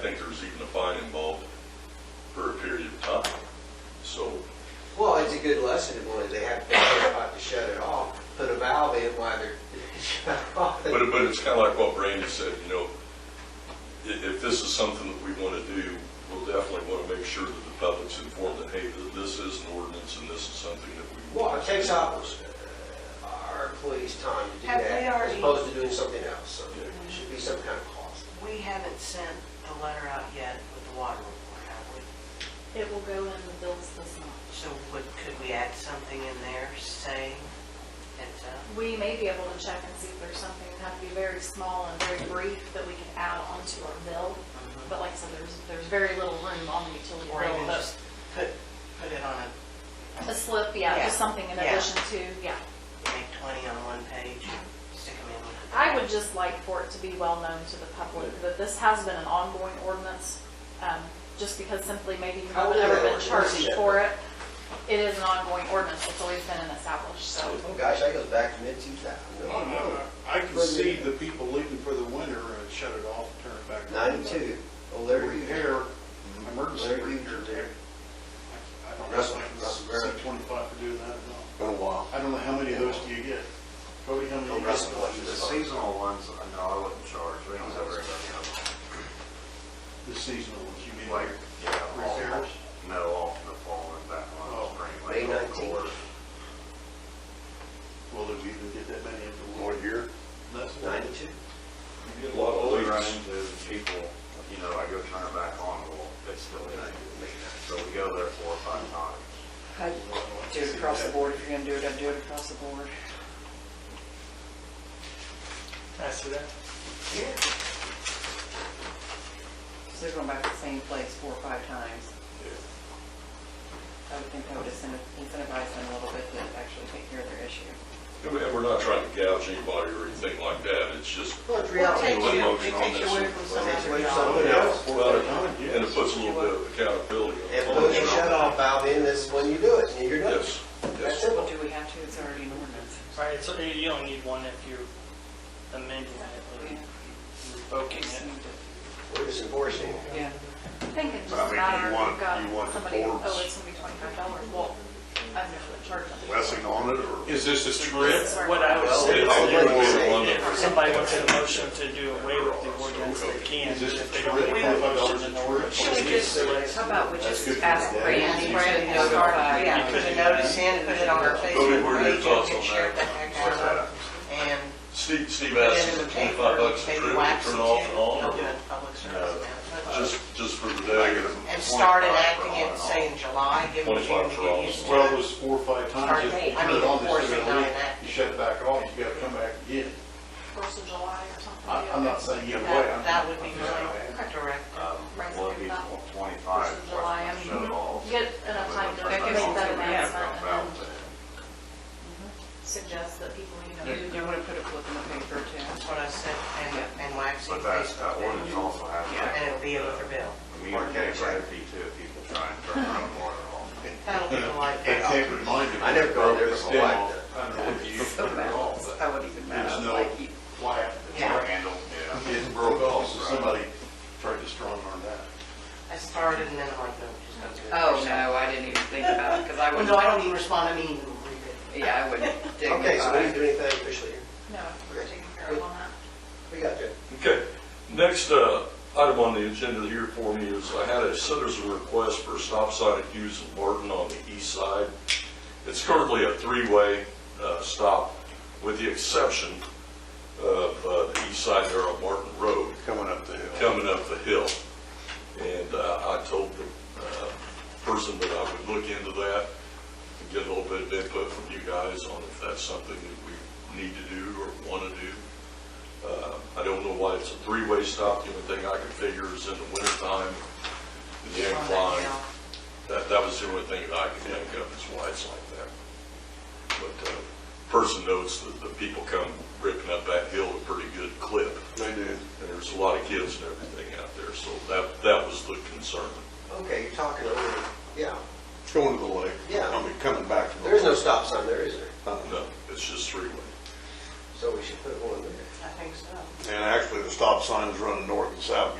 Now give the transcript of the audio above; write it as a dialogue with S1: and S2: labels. S1: think there's even a fine involved for a period of time. So,
S2: Well, it's a good lesson, in one, they have to think about to shut it off, put a valve in while they're shut off.
S1: but, it- but it's kind of like what Brandy said, you know, i- if this is something that we want to do, we'll definitely want to make sure that the public's informed that, hey, th- this is an ordinance and this is something that we.
S2: Well,
S1: want
S2: it
S1: to
S2: takes
S1: do.
S2: out our employees' time to do
S3: Have
S2: that,
S3: they
S2: as
S3: already-
S2: opposed to doing something else, so there should be some kind of cost.
S3: We haven't sent the letter out yet with the water report, have we?
S4: It will go in the bills this month.
S3: So would, could we add something in there saying uh, it's a,
S4: We may be able to check and see if there's something, it'd have to be very small and very brief that we could add onto our bill.
S3: Mm-hmm.
S4: But like I said, there's, there's very little room on the utility
S3: or
S4: bill,
S3: even
S4: but
S3: just put, put it on a,
S4: a slip, yeah, just
S3: Yeah.
S4: something in
S3: Yeah.
S4: addition to, yeah.
S3: make 20 on one page, stick them in with the.
S4: I would just like for it to be well known to the public that this has been an ongoing ordinance, um, just because simply maybe you
S2: How
S4: haven't
S2: old
S4: ever
S2: is that
S4: been
S2: ordinance?
S4: charged for it. It is an ongoing ordinance, it's always been an established, so.
S2: Oh, gosh, that goes back to mid-2000. Oh,
S5: Uh, I can see the people leaving for the winter and shut it off, turn it back on.
S2: 92, oh,
S5: But
S2: Larry,
S5: Repair, emergency
S2: Larry, you
S5: repair.
S2: did.
S5: I don't know,
S2: Russell- Russell
S5: I
S2: Barrett.
S5: can see 25 for doing that or not.
S2: Been a while.
S5: I don't know how many of those do you get? Cody, how many? do you
S2: Oh, Russell,
S5: get?
S2: what you
S6: The seasonal ones, no, I wouldn't charge, we don't ever,
S5: The seasonal ones, you mean
S6: like,
S5: like
S6: yeah, all,
S5: repairs?
S6: no, off in the fall and back
S5: Oh.
S6: on
S2: May
S6: spring, like, of
S2: 19th.
S6: course.
S5: Well, do we even get that many in the war year? That's
S2: 92.
S5: You get a lot of
S6: What we run
S5: leaks.
S6: into is people, you know, I go turn it back on, well, it's still in. So we go there four or five times.
S7: I'd do it across the board, if you're gonna do it, I'd do it across the board.
S8: After that,
S7: So they're going back to the same place four or five times. I would think that would incenti- incentivize them a little bit to actually take care of their issue.
S1: And we- and we're not trying to gouge anybody or anything like that, it's just,
S2: Well, it's
S3: Well, it
S2: reality.
S3: takes
S6: One
S3: you,
S6: motion
S3: it
S6: on
S3: takes you
S6: this
S3: away
S6: one.
S3: from
S2: Well,
S3: something.
S2: it's
S3: else.
S2: something
S5: Yeah,
S2: else.
S5: four or five times, yes.
S1: and it puts a little bit of accountability on.
S2: And put a shut-off valve in this when you do it, and you're done.
S1: Yes,
S2: That's
S1: yes.
S2: simple.
S7: Do we have to? It's already an ordinance.
S8: right, so you don't need one if you're amending it or revoking it.
S2: We're just enforcing.
S7: Yeah.
S4: I think it's
S6: But I
S4: just a
S6: mean,
S4: matter
S6: you
S4: of
S6: want-
S4: you've got
S6: you want the
S4: somebody, oh,
S6: forms.
S4: it's gonna be twenty-five dollars, well, I'm just gonna charge them.
S6: Blessing on it, or?
S9: Is this a script?
S8: What I would
S2: Well,
S8: say
S2: it's
S8: is
S2: all
S8: if-
S2: good to say.
S8: if somebody wants a motion to do away with the ordinance, they can, but if they don't make a motion in order.
S3: Should we just, how about we just ask Brandy,
S7: Brandy
S3: to start, yeah,
S7: put
S3: put a notice in, put it on our
S1: Cody,
S3: Facebook
S1: what are your
S3: page, and
S1: thoughts
S3: get
S1: on that?
S3: shared the heck out of it. And
S1: Steve, Steve
S3: put
S1: asked
S3: it in
S1: if
S3: the
S1: it's
S3: paper,
S1: twenty-five bucks a
S3: maybe
S1: trip,
S3: wax
S1: turn
S3: it
S1: it off and
S3: We'll
S1: on,
S3: do
S1: or
S3: a public service announcement.
S1: just, just for the
S6: I
S1: day?
S6: get them
S3: And started
S6: 25
S3: acting
S6: for on
S3: it,
S6: and
S3: say in July, give them June
S1: Twenty-five
S3: to
S1: for
S3: get
S1: all.
S3: used
S5: Well, it
S3: to it.
S5: was four or five times,
S3: Start
S5: if
S3: date.
S5: you
S3: I
S5: turn
S3: mean,
S5: it on,
S3: force
S5: it's
S3: it
S5: gonna
S3: on
S5: leak,
S3: that.
S5: you shut it back on, you gotta come back again.
S4: First of July or something.
S5: I- I'm not saying either way.
S3: That
S5: I'm-
S3: that would be my
S4: Okay.
S3: directive.
S6: Um,
S4: Right,
S6: well,
S4: so
S6: he's
S4: about
S6: twenty-five.
S4: first of July, I mean,
S6: shut it off.
S4: Get enough time to make that announcement and then suggest that people, you know, do
S7: You want to put a flip in the paper too.
S3: That's what I said, and, and wax it
S6: But that, that
S3: Facebook.
S6: ordinance
S3: page.
S6: also has.
S3: Yeah, And it'll be with her bill.
S6: A meter gauge safety too, if people try and turn their own water off.
S3: That'll be the
S5: I
S3: light. bill.
S5: can't remind him.
S2: I never go there with my wife,
S5: I don't know if you
S7: So
S5: remember at all,
S7: bad. I wouldn't even
S5: but
S7: know.
S5: there's no
S7: Like, you-
S5: flat
S3: Yeah.
S5: handle.
S6: Yeah.
S5: It broke off, so somebody tried to strong arm that.
S3: I started and then I'm like, no, just don't do it.
S7: Oh, no, I didn't even think about it, because I
S3: Well,
S7: wouldn't.
S3: No, I don't even respond, I mean, read
S7: Yeah, I wouldn't dignify.
S2: Okay, so we didn't do anything officially here.
S4: no, we're taking care of all that.
S2: We got that.
S1: Okay, next uh, item on the agenda here for me is I had a citizen request for a stop sign at Hughes and Barton on the east side. It's currently a three-way uh, stop with the exception of uh, the east side there on Barton Road
S5: Coming up the hill.
S1: coming up the hill. And uh, I told the uh, person that I would look into that and get a little bit of input from you guys on if that's something that we need to do or want to do. Uh, I don't know why it's a three-way stop. The only thing I can figure is in the wintertime, the
S3: it. On that
S1: incline.
S3: hill.
S1: That, that was the only thing that I could think of is why it's like that. But uh, person notes that the people come ripping up that hill a pretty good clip.
S5: They do.
S1: And there's a lot of kids and everything out there, so that, that was the concern.
S2: Okay, you're talking over, yeah.
S5: Going to the lake.
S2: Yeah.
S5: I mean, coming back to the.
S2: There is no stop sign there, is there?
S1: No, it's just three-way.
S2: So we should put one there.
S3: I think so.
S5: And actually, the stop sign is running north and south,